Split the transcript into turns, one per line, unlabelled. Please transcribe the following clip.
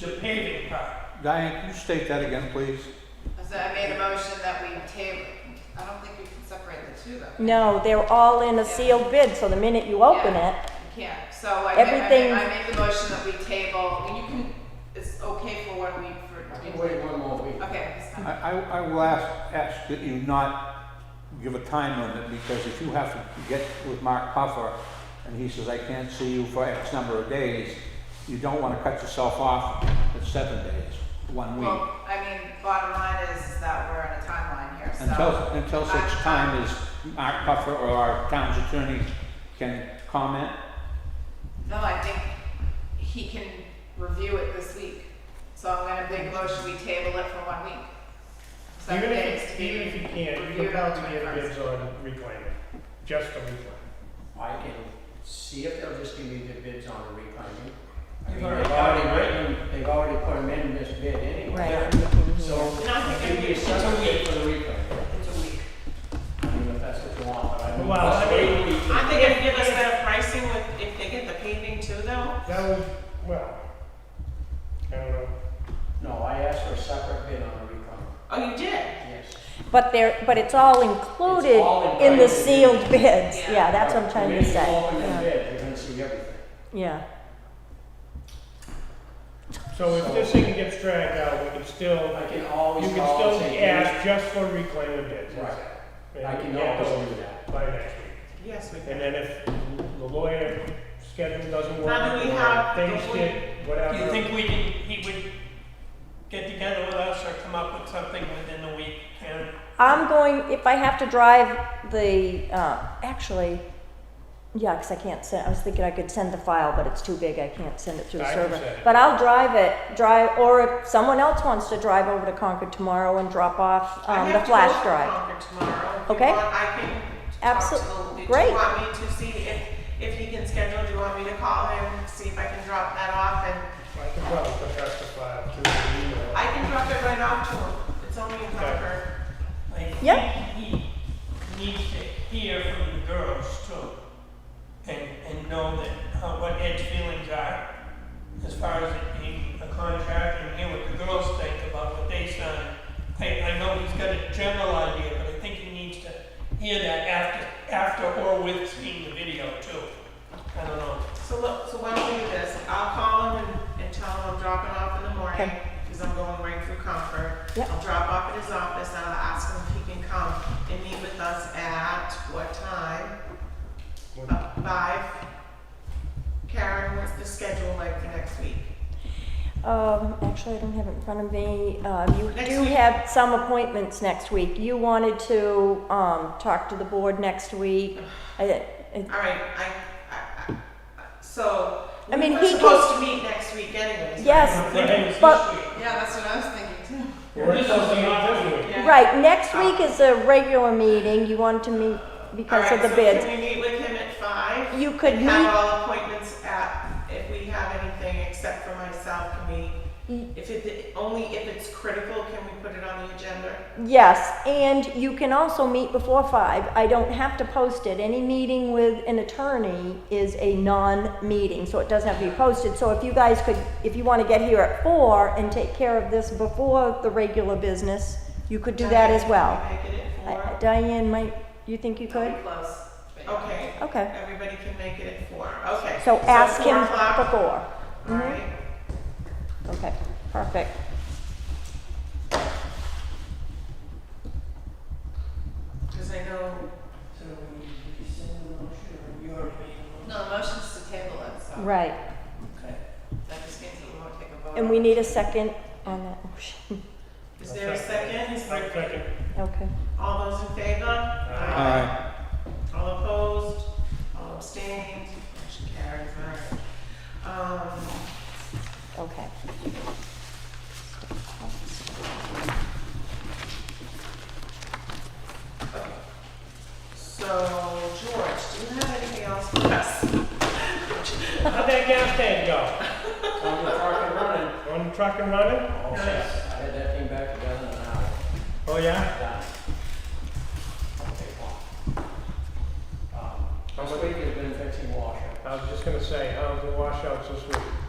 the paving part.
Diane, can you state that again, please?
So I made a motion that we table, I don't think we can separate the two though.
No, they're all in a sealed bid, so the minute you open it,
Yeah, You can't, so I made, I made,
Everything-
I made the motion that we table, and you can, it's okay for one week for.
I can wait one more week.
Okay, it's
I,
fine.
I, I will ask, ask that you not give a time limit, because if you have to get with Mark Puffer, and he says, I can't see you for X number of days, you don't wanna cut yourself off at seven days, one week.
Well, I mean, bottom line is is that we're on a timeline here, so.
Until, until such
I-
time as Mark Puffer or our town's attorney can comment.
No, I think he can review it this week, so I'm gonna make a motion, we table it for one week. Seven
Even
days
if,
to be
even if you can't,
reviewed
you're
on
bound
the
to get
21st.
bids on reclaiming, just for reclaiming.
I can see if they'll just give me the bids on the reclaiming. I
You've
mean,
already
They've
got it,
already written, they've already put them in this bid anyway.
right?
So,
And I think
give me a
it's a
separate bid
week.
for the reclaiming.
It's a week.
I mean, if that's what you want, but I don't.
Well, I mean-
I think if you give us better pricing with, if they get the paving too though,
That would, well, I don't know.
No, I asked for a separate bid on the reclaiming,
oh, you did?
yes.
But they're, but it's all included
all
in the
included.
sealed bids,
Yeah.
yeah, that's what I'm trying to
When you
say,
open the
yeah,
bid, you're gonna see everything.
yeah.
So if this thing gets dragged out, we can still,
I
you
can always
can
call and
still
say.
ask just for reclaiming bids.
Right,
And
I
we
can
get
always
those
do that.
By next week.
Yes,
Um,
we
And
can.
then if the lawyer schedule doesn't work,
Now, do we
or
have-
things
do we-
get,
Do you
whatever,
think we can, he would get together with us or come up with something within the week, Karen?
I'm going, if I have to drive the, uh, actually, yeah, 'cause I can't send, I was thinking I could send the file, but it's too big, I can't send it through the
I can
server.
send it.
But I'll drive it, drive, or if someone else wants to drive over to Concord tomorrow and drop off, um, the flash drive.
I have to go to Concord tomorrow. If you
Okay.
want, I can talk
Abso-
to the, do
great.
you want me to see if, if he can schedule, do you want me to call him, see if I can drop that off and
I can probably put that to file through the email.
I can drop it right off to him. It's only a Concord.
Like,
Yep.
He he needs to hear from the girls too, and, and know that, uh, what Ed's feelings are as far as it being a contract and hear what the girls think about what they signed. I, I know he's got a general idea, but I think he needs to hear that after, after or with seeing the video too. I don't know.
So look, so why don't we do this? I'll call him and, and tell him I'm dropping off in the morning,
Okay.
because I'm going right through Comfort.
Yep.
I'll drop off at his office, and I'll ask him if he can come and meet with us at what time?
What-
Uh, Five? Karen, what's the schedule like for next week?
Um, actually, I don't have it in front of me. Uh, you
Next
do
week.
have some appointments next week. You wanted to, um, talk to the board next week. I, I-
All right, I, I, I, so,
I
we
mean,
were
he can-
supposed to meet next week anyways, right?
Yes,
I'm thinking it's this
but-
week.
Yeah, that's what I was thinking
Well, this is the office week.
Yeah. Oh.
right, next week is a regular meeting. You wanted to meet
All
because
right,
of the
so
bids.
Can we meet with him at five?
You could
have
meet,
all appointments at, if we have anything except for myself, can we,
Mm.
if it, only if it's critical, can we put it on the agenda?
yes, and you can also meet before five. I don't have to post it. Any meeting with an attorney is a non-meeting, so it doesn't have to be posted. So if you guys could, if you wanna get here at four and take care of this before the regular business, you could do that as well.
Can we make it at
I-
four?
Diane, might, you think you
too.
could?
Pretty close. but-
Okay,
Okay,
everybody can make it at four, okay.
so ask him
four o'clock,
before.
All
Mhm.
right,
Okay, perfect.
because I know,
So we rescind the motion, or you already made the
No, the motion's to table it, so.
Right,
That just means that we won't take a vote.
and we need a second on that motion.
is there a second? Is there-
Second.
Okay.
All those in favor?
Aye.
All opposed, all abstained, motion carries, all right. Um,
Okay.
So, George, do you have anything else for us?
How'd that gas tank go?
On the truck and running.
On the truck and running?
All set. I had that thing back together in an hour.
Oh, yeah?
Done. Okay, well. Um, This week has been fixing washer.
I was just gonna say, how's the washouts this week?